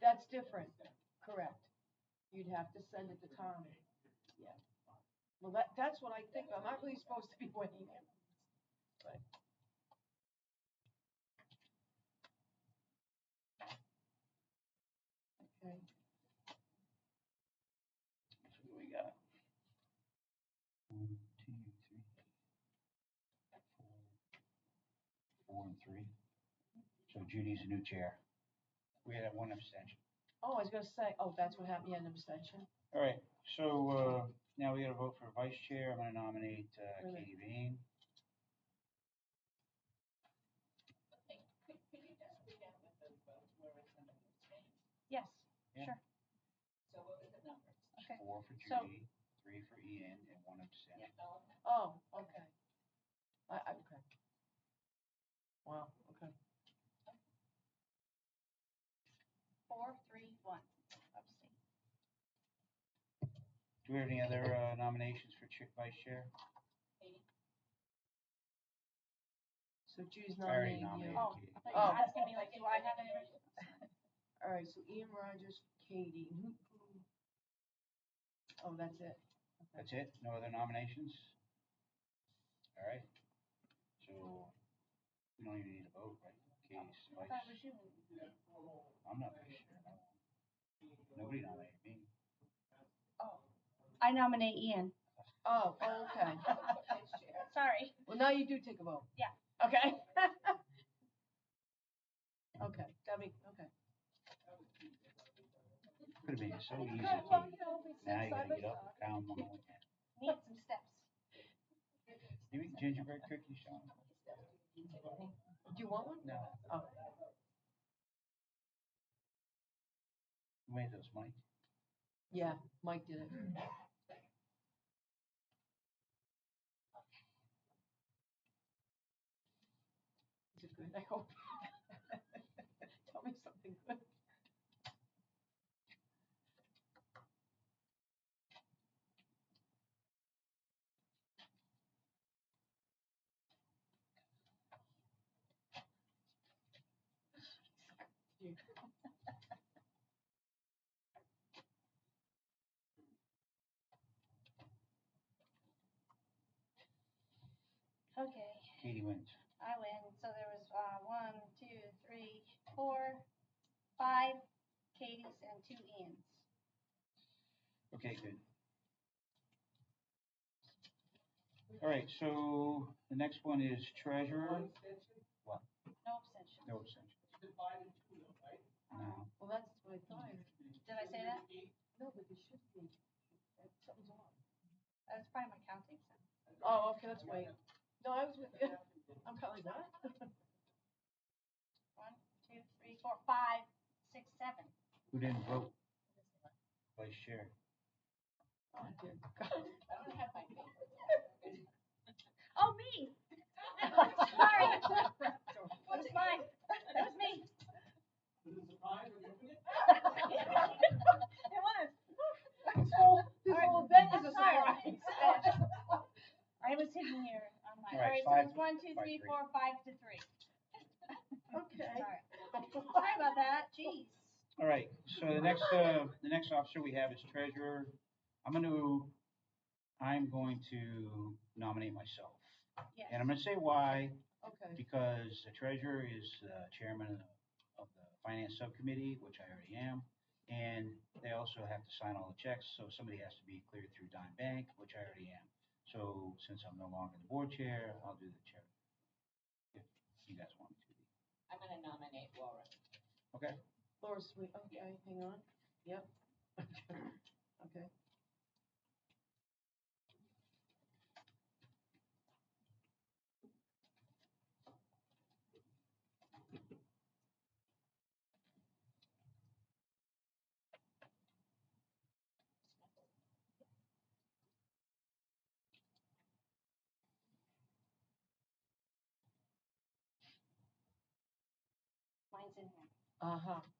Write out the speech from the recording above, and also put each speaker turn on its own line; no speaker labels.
That's different, correct. You'd have to send it to Tom. Yeah. Well, that, that's what I think. I'm not really supposed to be weighing in. But Okay. What do we got?
One, two, three, four, four and three. So Judy's the new chair. We had that one abstention.
Oh, I was gonna say, oh, that's what happened, yeah, an abstention.
All right, so, uh, now we gotta vote for vice chair. I'm gonna nominate, uh,
Really?
Katie Vane.
Yes,
Yeah.
sure. Okay.
Four for
So-
Judy, three for Ian, and one abstention.
Oh, okay. I, I, okay. Wow, okay.
Four, three, one, abstain.
Do we have any other, uh, nominations for chair, vice chair?
So Judy's
I already
nominating you.
nominated
Oh.
Katie.
I thought you
Oh.
were asking me like, do I have any?
All right, so Ian Rogers, Katie. and who- who- Oh, that's it.
That's it? No other nominations? All right. So, we don't even need a vote, right? Katie's
I
vice.
thought it was you.
I'm not vice chair. no. Nobody nominated me.
I nominate Ian.
Oh, oh, okay.
Sorry.
Well, now you do take a vote.
Yeah.
Okay. Okay, that make, okay.
Could've been so easy.
Good,
to-
well, you know, we sit
Now you
side
gotta
by
get up and count them all.
side. Need some steps.
Do you eat gingerbread cookies, Sean?
Do you want one?
No.
Oh,
You made those, Mike?
yeah, Mike did it. Is it good? I hope. Tell me something good.
Okay,
Katie wins.
I win. So there was, uh, one, two, three, four, five Katie's and two Ian's.
Okay, good. All right, so the next one is treasurer.
No abstention.
No abstention. No.
Well, that's what I thought.
Did I say that?
No, but it should be. Something's wrong.
That's probably my counting.
Oh, okay, let's wait. No, I was with you. I'm kind of like, what?
One, two, three, four, five, six, seven.
Who didn't vote? Vice chair.
Oh, dear God.
Oh, me! Sorry. It was mine. It was me. It was.
This whole, this whole event is a
Sorry.
surprise.
I was hidden here on my,
All
all
right,
right, so
five-
it was one, two,
five,
three,
three.
four, five to three.
Okay.
Sorry. Sorry about that, jeez.
All right, so the next, uh, the next officer we have is treasurer. I'm gonna, I'm going to nominate myself.
Yes.
And I'm gonna say why,
Okay.
because the treasurer is uh, chairman of the- of the finance subcommittee, which I already am. And they also have to sign all the checks, so somebody has to be cleared through Dime Bank, which I already am. So since I'm no longer the board chair, I'll do the chair. If you guys want me to.
I'm gonna nominate Laura.
Okay,
Laura Sweet, okay, hang on. Yep. Okay.
Mine's in here.
Uh-huh.